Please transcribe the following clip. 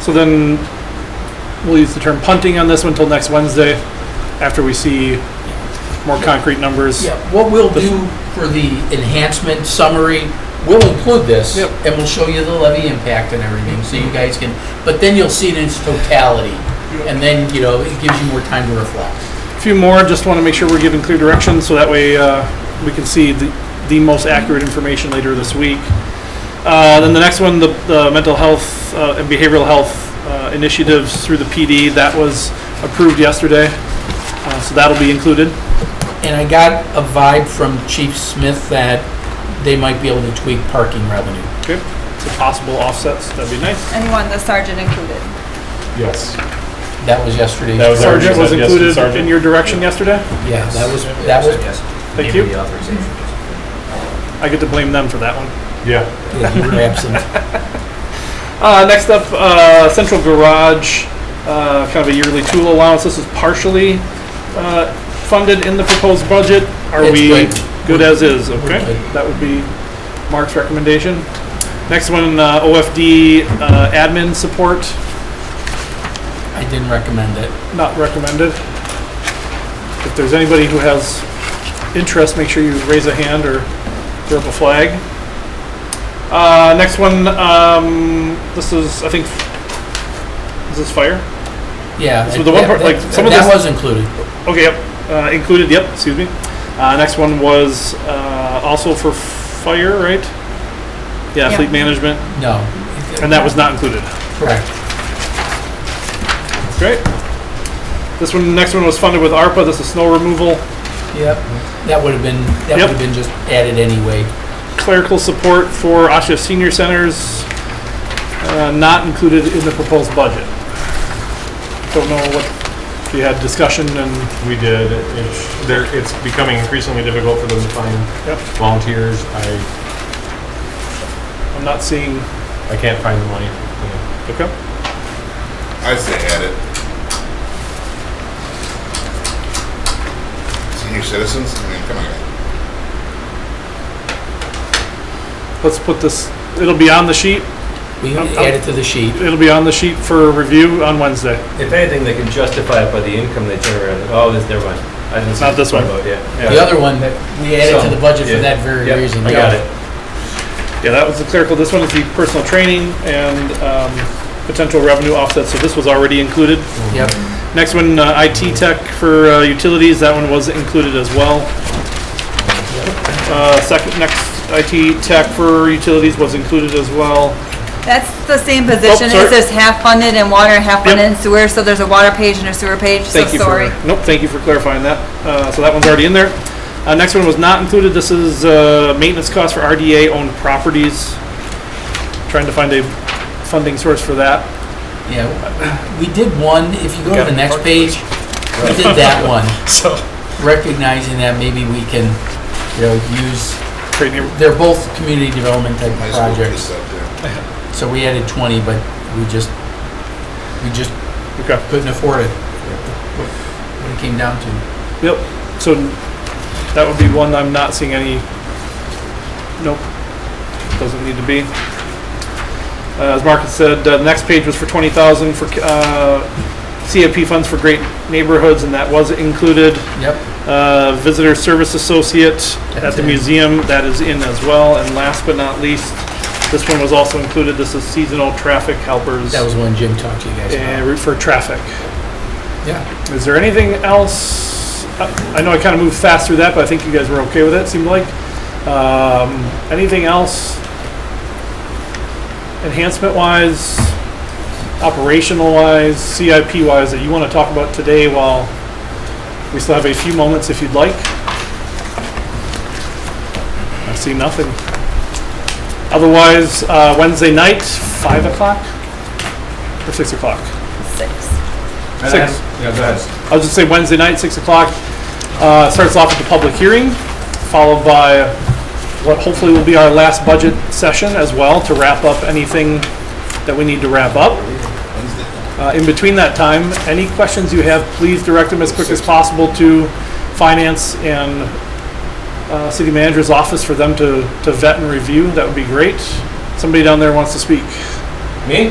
So then we'll use the term punting on this one until next Wednesday, after we see more concrete numbers. Yeah, what we'll do for the enhancement summary, we'll include this, Yep. and we'll show you the levy impact and everything, so you guys can, but then you'll see it in its totality, and then, you know, it gives you more time to reflect. A few more, just want to make sure we're giving clear direction, so that way uh, we can see the, the most accurate information later this week. Uh, Then the next one, the, the mental health uh, and behavioral health uh, initiatives through the PD, that was approved yesterday, Uh, so that'll be included. And I got a vibe from Chief Smith that they might be able to tweak parking revenue. Okay. So possible offsets, that'd be nice. And you want the sergeant included. Yes. That was yesterday's. That was our- Sergeant was Yes, included Sergeant. in your direction yesterday? Yeah, that was, that was, Thank you. I get to blame them for that one. Yeah. yeah, you were absent. Uh, next up, uh, Central Garage, uh, kind of a yearly tool allowance. This is partially uh, funded in the proposed budget. Are It's we good. good as is? We're Okay, good. that would be Mark's recommendation. Next one, uh, OFD uh, admin support, I didn't recommend it. not recommended. If there's anybody who has interest, make sure you raise a hand or throw up a flag. Uh, next one, um, this is, I think, is this fire? Yeah. So the one that- part, like, that- some of That this- was included. Okay, yep, uh, included, yep, excuse me. Uh, next one was, uh, also for fire, right? Yeah, Yeah. fleet management, No. and that was not included. Correct. Great. This one, next one was funded with ARPA, this is snow removal, Yep, that would have been, that Yep. would have been just added anyway. clerical support for Asha Senior Centers, uh, not included in the proposed budget. Don't know what, if you had discussion and, We did. It's, there, it's becoming increasingly difficult for them to find yep, volunteers. I, I'm not seeing, I can't find the money. Yeah. okay. I say add it. Senior citizens, I mean, come on. Let's put this, it'll be on the sheet, We Um, um, added to the sheet. it'll be on the sheet for review on Wednesday. If anything, they can justify it by the income they turn around. Oh, this, never mind. I didn't see Not this one. about it, Yeah. The other one, that we added to the budget for Yeah, that very yeah, reason. I yeah. got it. Yeah, that was the clerical, this one is the personal training and um, potential revenue offset, so this was already included. Yep, Next one, uh, IT tech for uh, utilities, that one was included as well. Uh, Second, next, IT tech for utilities was included as well. That's the same position, Oh, sorry. it's just half funded in water, half funded in sewer, so there's a water page and a sewer page, so Thank you for, sorry. nope, thank you for clarifying that. Uh, So that one's already in there. Uh, Next one was not included, this is uh, maintenance costs for RDA-owned properties. Trying to find a funding source for that. yeah. We did one, if you go to Got the it. next page, we did that one, So, recognizing that maybe we can, you know, use, great neighbor- they're both community development type Might of as well put projects. this up there. So we added twenty, but we just, we just okay. couldn't afford it. What it came down to. Yep, so that would be one I'm not seeing any, nope, doesn't need to be. Uh, As Mark had said, uh, the next page was for twenty thousand for uh, CIP funds for great neighborhoods, and that was included. Yep, Uh, Visitor Service Associate at That's the in. museum, that is in as well. And last but not least, this one was also included, this is seasonal traffic helpers that was one Jim talked to you guys about. uh, for traffic. Yeah, Is there anything else? I I know I kind of moved fast through that, but I think you guys were okay with it, seemed like. Um, Anything else? Enhancement-wise, operational-wise, CIP-wise that you want to talk about today while we still have a few moments if you'd like? I see nothing. Otherwise, uh, Wednesday night, 5 o'clock or 6 o'clock? Six. And Six. I- Yeah, that's. I was just say Wednesday night, six o'clock, uh, starts off with the public hearing, followed by what hopefully will be our last budget session as well to wrap up anything that we need to wrap up. Uh, in between that time, any questions you have, please direct them as quick as possible to finance and, uh, city manager's office for them to, to vet and review. That would be great. Somebody down there wants to speak. Me?